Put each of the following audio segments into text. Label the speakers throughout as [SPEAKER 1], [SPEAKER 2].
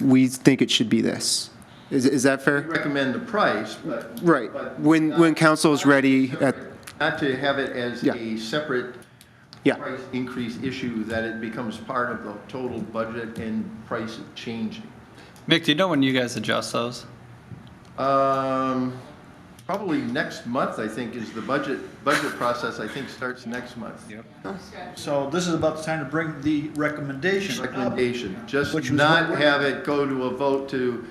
[SPEAKER 1] we think it should be this. Is, is that fair?
[SPEAKER 2] recommend the price, but.
[SPEAKER 1] Right.
[SPEAKER 2] but
[SPEAKER 1] When,
[SPEAKER 2] not-
[SPEAKER 1] when council is ready, at,
[SPEAKER 2] Not to have it as
[SPEAKER 1] Yeah.
[SPEAKER 2] a separate
[SPEAKER 1] yeah,
[SPEAKER 2] price increase issue, that it becomes part of the total budget and price of changing.
[SPEAKER 3] Mick, do you know when you guys adjust those?
[SPEAKER 2] Um, probably next month, I think, is the budget, budget process, I think, starts next month. Yep.
[SPEAKER 4] So this is about the time to bring the recommendation up.
[SPEAKER 1] Uh,
[SPEAKER 2] Recommendation, just
[SPEAKER 4] Which was
[SPEAKER 2] not
[SPEAKER 4] what we're-
[SPEAKER 2] have it go to a vote to,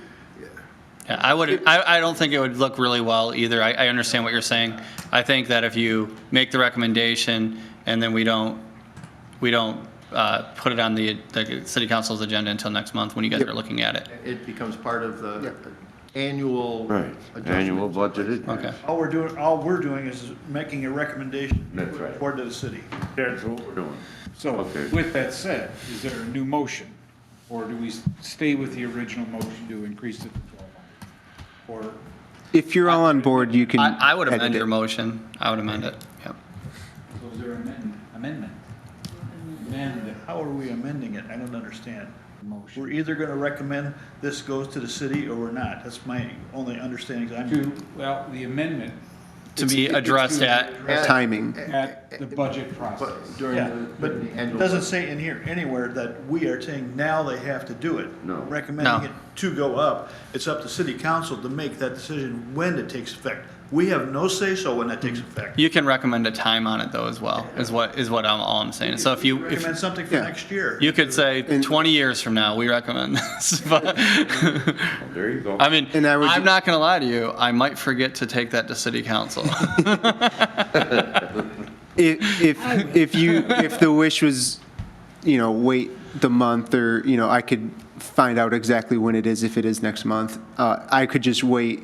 [SPEAKER 3] Yeah, I would. I, I don't think it would look really well either. I, I understand what you're saying. I think that if you make the recommendation and then we don't, we don't uh, put it on the, the city council's agenda until next month when you guys are looking at it.
[SPEAKER 2] it becomes part of the annual.
[SPEAKER 5] Right,
[SPEAKER 2] adjustment.
[SPEAKER 5] annual budgeted.
[SPEAKER 3] Okay.
[SPEAKER 4] All we're doing, all we're doing is making a recommendation
[SPEAKER 5] That's right.
[SPEAKER 4] toward the city.
[SPEAKER 5] That's what we're doing.
[SPEAKER 6] So
[SPEAKER 5] Okay.
[SPEAKER 6] with that said, is there a new motion? Or do we stay with the original motion to increase it to 1,200? Or
[SPEAKER 1] if you're all on board, you can.
[SPEAKER 3] I, I would
[SPEAKER 1] edit
[SPEAKER 3] amend
[SPEAKER 1] it.
[SPEAKER 3] your motion. I would amend it. Yep.
[SPEAKER 6] So is there amendment, amendment? Amend
[SPEAKER 4] How are we amending it? I don't understand.
[SPEAKER 6] the motion.
[SPEAKER 4] We're either gonna recommend this goes to the city or we're not. That's my only understanding. I'm,
[SPEAKER 6] To, well, the amendment
[SPEAKER 3] To be addressed at.
[SPEAKER 1] Timing.
[SPEAKER 6] at the budget process.
[SPEAKER 2] But During
[SPEAKER 4] yeah,
[SPEAKER 2] the,
[SPEAKER 4] but
[SPEAKER 2] during the
[SPEAKER 4] it
[SPEAKER 2] annual.
[SPEAKER 4] doesn't say in here anywhere that we are saying now they have to do it.
[SPEAKER 5] No.
[SPEAKER 3] No.
[SPEAKER 4] Recommending it to go up. It's up to city council to make that decision when it takes effect. We have no say-so when that takes effect.
[SPEAKER 3] You can recommend a time on it though as well. Is what is what I'm all I'm saying. So if you if
[SPEAKER 4] Recommend something for
[SPEAKER 1] Yeah.
[SPEAKER 4] next year.
[SPEAKER 3] you could say 20 years from now we recommend this. But
[SPEAKER 5] There you go.
[SPEAKER 3] I mean,
[SPEAKER 1] And I would-
[SPEAKER 3] I'm not going to lie to you. I might forget to take that to city council.
[SPEAKER 1] If, if, if you, if the wish was, you know, wait the month or, you know, I could find out exactly when it is, if it is next month. Uh, I could just wait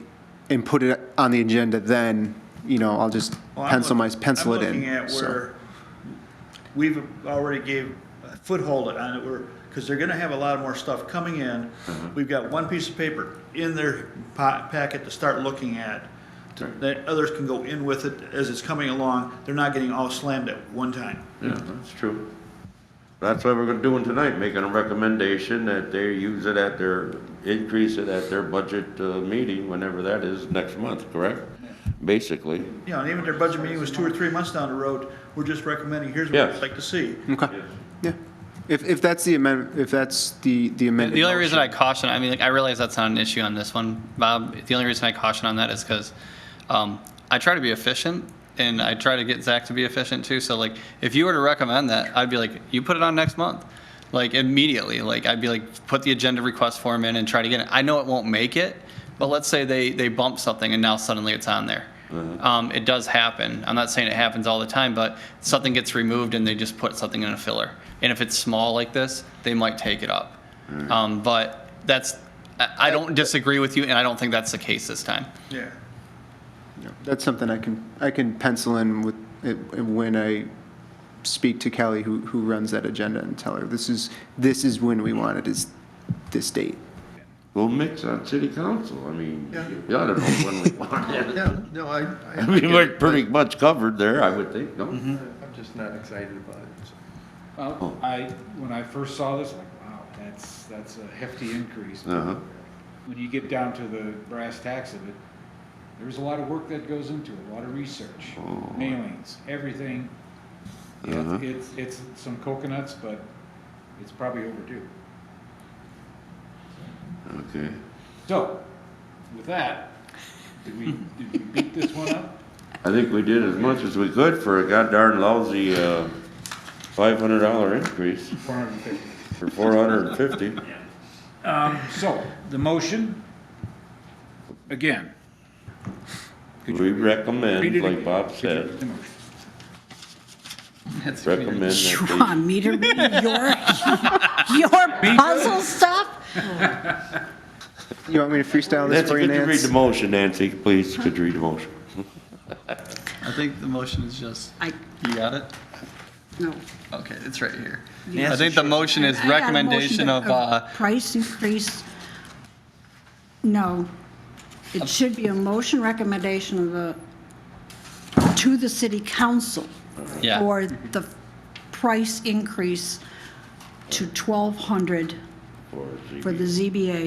[SPEAKER 1] and put it on the agenda then, you know, I'll just
[SPEAKER 4] Well, I'm
[SPEAKER 1] pencil my,
[SPEAKER 4] look-
[SPEAKER 1] pencil
[SPEAKER 4] I'm
[SPEAKER 1] it
[SPEAKER 4] looking at
[SPEAKER 1] in. So
[SPEAKER 4] where We've already gave a foothold on it, we're, because they're gonna have a lot more stuff coming in.
[SPEAKER 1] Uh-huh.
[SPEAKER 4] We've got one piece of paper in their pa- packet to start looking at, to-
[SPEAKER 5] Right.
[SPEAKER 4] that others can go in with it as it's coming along, they're not getting all slammed at one time.
[SPEAKER 5] Yeah, that's true. That's what we're gonna do tonight, making a recommendation that they use it at their, increase it at their budget uh, meeting, whenever that is, next month, correct? Basically.
[SPEAKER 4] You know, and even if their budget meeting was two or three months down the road, we're just recommending, here's what we'd
[SPEAKER 5] Yes.
[SPEAKER 4] like to see.
[SPEAKER 1] Okay, yeah. If, if that's the amendment, if that's the, the amendment.
[SPEAKER 3] the only reason I caution, I mean, like, I realize that's not an issue on this one, Bob. The only reason I caution on that is because um, I try to be efficient and I try to get Zach to be efficient too. So like, if you were to recommend that, I'd be like, you put it on next month. Like immediately, like I'd be like, put the agenda request form in and try to get it. I know it won't make it, but let's say they, they bump something and now suddenly it's on there. Um, it does happen. I'm not saying it happens all the time, but something gets removed and they just put something in a filler. And if it's small like this, they might take it up. Um, but that's, I, I don't disagree with you, and I don't think that's the case this time.
[SPEAKER 4] Yeah.
[SPEAKER 1] That's something I can, I can pencil in with, eh, when I speak to Kelly, who, who runs that agenda, and tell her, this is, this is when we want it, is this date.
[SPEAKER 5] We'll mix on city council, I mean,
[SPEAKER 2] Yeah.
[SPEAKER 5] you ought to know when we want it.
[SPEAKER 2] Yeah, no, I,
[SPEAKER 5] I
[SPEAKER 2] I,
[SPEAKER 5] mean, we're pretty much covered there, I would think, no?
[SPEAKER 2] I'm just not excited about it. so.
[SPEAKER 6] Well, I, when I first saw this, like, wow, that's, that's a hefty increase.
[SPEAKER 5] Uh-huh.
[SPEAKER 6] When you get down to the brass tacks of it, there's a lot of work that goes into it, a lot of research, mailings, everything.
[SPEAKER 5] Uh-huh.
[SPEAKER 6] It's, it's, it's some coconuts, but it's probably overdue.
[SPEAKER 5] Okay.
[SPEAKER 6] So, with that, did we, did we beat this one up?
[SPEAKER 5] I think we did as much as we could for a goddamn lousy, uh, five hundred dollar increase,
[SPEAKER 6] Four hundred and fifty.
[SPEAKER 5] or four hundred and fifty.
[SPEAKER 6] So, the motion, again,
[SPEAKER 5] We
[SPEAKER 6] Read it
[SPEAKER 5] recommend, like
[SPEAKER 6] again.
[SPEAKER 5] Bob
[SPEAKER 6] the
[SPEAKER 5] said,
[SPEAKER 6] motion.
[SPEAKER 5] recommend
[SPEAKER 7] You
[SPEAKER 5] that
[SPEAKER 7] want me to read your, your puzzle stuff?
[SPEAKER 1] You want me to freestyle
[SPEAKER 5] they.
[SPEAKER 1] this for
[SPEAKER 5] Nancy,
[SPEAKER 1] you,
[SPEAKER 5] could you read
[SPEAKER 1] Nance?
[SPEAKER 5] the motion, Nancy, please, could you read the motion?
[SPEAKER 3] I think the motion is just,
[SPEAKER 7] I,
[SPEAKER 3] you got it?
[SPEAKER 7] no.
[SPEAKER 3] Okay, it's right here. I think the motion is
[SPEAKER 7] I got a motion
[SPEAKER 3] recommendation
[SPEAKER 7] to-
[SPEAKER 3] of, uh,
[SPEAKER 7] Price increase, no. It should be a motion recommendation of the, to the city council.
[SPEAKER 3] Yeah.
[SPEAKER 7] For the price increase to 1,200
[SPEAKER 5] for ZBA.
[SPEAKER 7] for the ZBA